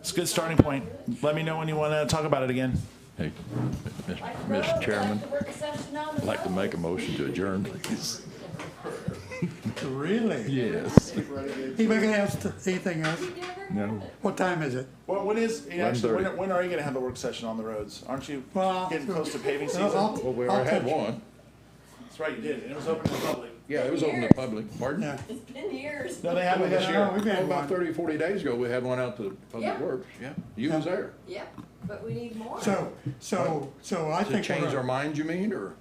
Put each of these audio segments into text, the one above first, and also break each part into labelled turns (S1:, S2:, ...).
S1: It's a good starting point. Let me know when you want to talk about it again.
S2: Hey, Mis- Mr. Chairman, I'd like to make a motion to adjourn, please.
S3: Really?
S2: Yes.
S3: Anybody gonna ask anything else?
S2: No.
S3: What time is it?
S1: Well, what is, you know, actually, when,
S2: 1:30.
S1: when are you going to have the work session on the roads? Aren't you
S3: Well,
S1: getting close to paving
S3: I'll-
S1: season?
S3: I'll-
S2: Well, we
S3: I'll
S2: already had
S3: touch-
S2: one.
S1: That's right, you did. And it was open to the public.
S2: Yeah, it was open to public. Pardon?
S3: Yeah.
S4: It's been years.
S1: No, they had
S2: We
S1: one
S2: had
S1: this
S3: no,
S1: year.
S3: we've had
S2: About
S3: one.
S2: 30, 40 days ago, we had one out to Public
S4: Yeah.
S2: Works. Yeah, you was
S3: Yeah.
S2: there.
S4: Yep, but we need more.
S3: So, so, so I
S2: To
S3: think,
S2: change our
S3: we're-
S2: mind, you mean, or?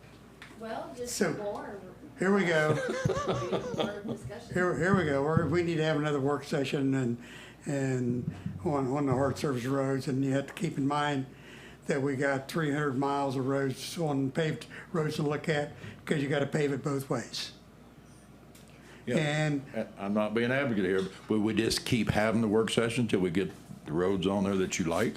S4: Well, just
S3: So-
S4: more,
S3: here we go,
S4: more discussion.
S3: here, here we go. We're- We need to have another work session and, and on, on the hard surface roads. And you have to keep in mind that we got three hundred miles of roads, on paved roads to look at, because you gotta pave it both ways.
S2: Yeah.
S3: And
S2: I- I'm not being advocate here, but we just keep having the work session till we get the roads on there that you like?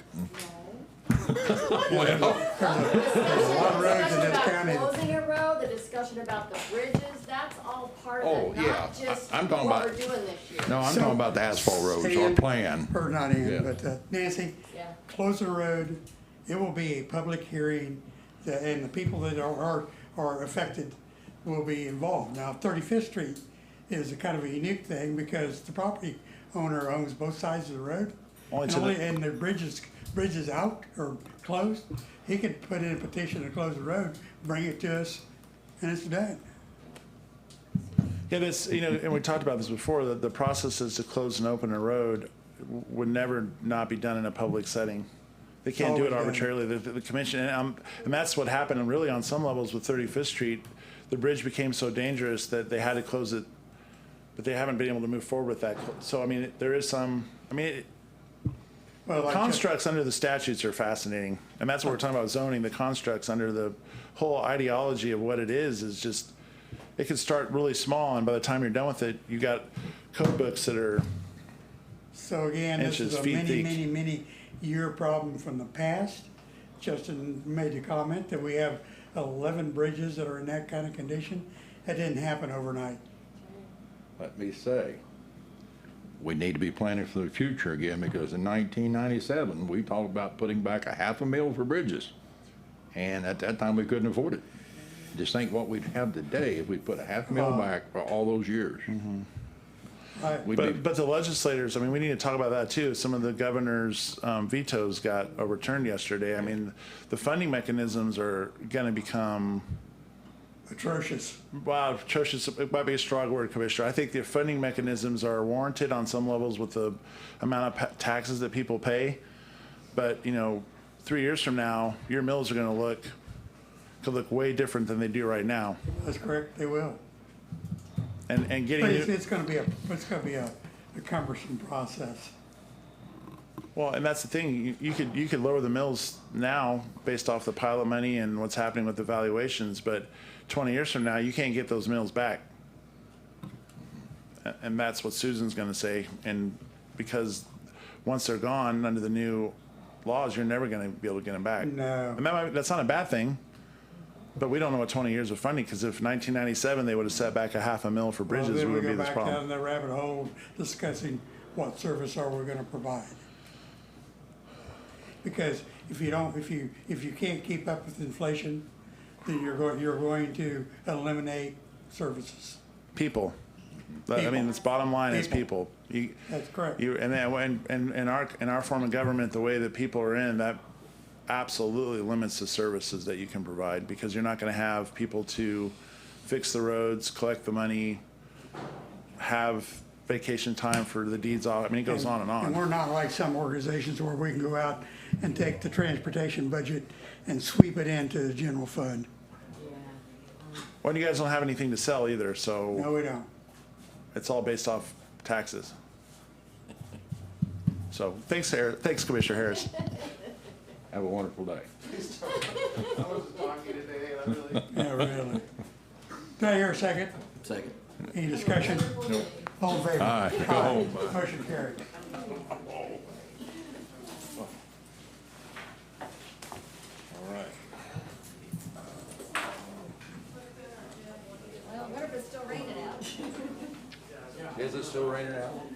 S4: There's
S3: lot of roads in this county.
S4: Closing a road, the discussion about the bridges, that's all part
S2: Oh,
S4: of it,
S2: yeah.
S4: not just
S2: I- I'm talking
S4: what we're
S2: about-
S4: doing this year.
S2: No, I'm
S3: So-
S2: talking about the asphalt roads, our
S3: Sand-
S2: plan.
S3: or not in,
S2: Yeah.
S3: but uh, Nancy,
S4: Yeah.
S3: close the road. It will be a public hearing, the- and the people that are, are, are affected will be involved. Now, Thirty-Fifth Street is a kind of a unique thing because the property owner owns both sides of the road.
S1: Only
S3: And
S1: to the-
S3: only, and the bridge is, bridge is out or closed. He could put in a petition to close the road, bring it to us, and it's done.
S1: Yeah, this, you know, and we talked about this before, that the processes to close and open a road w- would never not be done in a public setting. They can't do
S3: Always
S1: it
S3: done.
S1: arbitrarily. The, the commission, and, um, and that's what happened really on some levels with 35th Street. The bridge became so dangerous that they had to close it, but they haven't been able to move forward with that. So, I mean, there is some, I mean, it-
S3: Well, like-
S1: constructs under the statutes are fascinating. And that's what we're talking about zoning, the constructs under the whole ideology of what it is, is just, it could start really small and by the time you're done with it, you got code books that are,
S3: So again, this
S1: Inches,
S3: is a
S1: feet
S3: many,
S1: thick.
S3: many, many year problem from the past. Justin made the comment that we have eleven bridges that are in that kind of condition. That didn't happen overnight.
S2: let me say, we need to be planning for the future again, because in nineteen ninety-seven, we talked about putting back a half a mil for bridges. And at that time, we couldn't afford it. Just think what we'd have today if we put a half mil back for all those years.
S3: Right,
S2: We'd be-
S1: but, but the legislators, I mean, we need to talk about that too. Some of the governor's um, vetoes got overturned yesterday. I mean, the funding mechanisms are gonna become,
S3: atrocious.
S1: Wow, atrocious, it might be a strong word, Commissioner. I think the funding mechanisms are warranted on some levels with the amount of pa- taxes that people pay. But, you know, three years from now, your mills are gonna look, could look way different than they do right now.
S3: That's correct, they will.
S1: And, and getting,
S3: But it's,
S1: new-
S3: it's gonna be a, it's gonna be a a cumbersome process.
S1: well, and that's the thing, you- you could, you could lower the mills now based off the pile of money and what's happening with the valuations, but twenty years from now, you can't get those mills back. A- and that's what Susan's going to say. And because once they're gone under the new laws, you're never going to be able to get them back.
S3: No.
S1: and that might, that's not a bad thing. But we don't know what 20 years of funding because if 1997 they would have set back a half a mil for
S3: Well,
S1: bridges, we
S3: then we
S1: would be
S3: go
S1: this
S3: back down
S1: problem.
S3: the rabbit hole discussing what service are we gonna provide. Because if you don't, if you, if you can't keep up with inflation, then you're going, you're going to eliminate services.
S1: People. But, I mean,
S3: People.
S1: it's bottom line is
S3: People.
S1: people. You,
S3: That's correct.
S1: you, and then when, and in our in our form of government, the way that people are in that absolutely limits the services that you can provide because you're not going to have people to fix the roads, collect the money, have vacation time for the deeds off. I mean, it goes on and
S3: And we're
S1: on.
S3: not like some organizations where we can go out and take the transportation budget and sweep it into the general fund.
S1: Well, you guys don't have anything to sell either,
S3: No,
S1: so
S3: we don't.
S1: it's all based off taxes. So thanks, Har- thanks, Commissioner Harris.
S2: Have a wonderful day.
S3: Yeah, really. Do I hear a second?
S5: Second.
S3: Any discussion? All in favor?
S2: Aye, go home.
S3: Aye. Motion carried.
S4: Well, what if it's still raining out?
S2: Is it still raining out?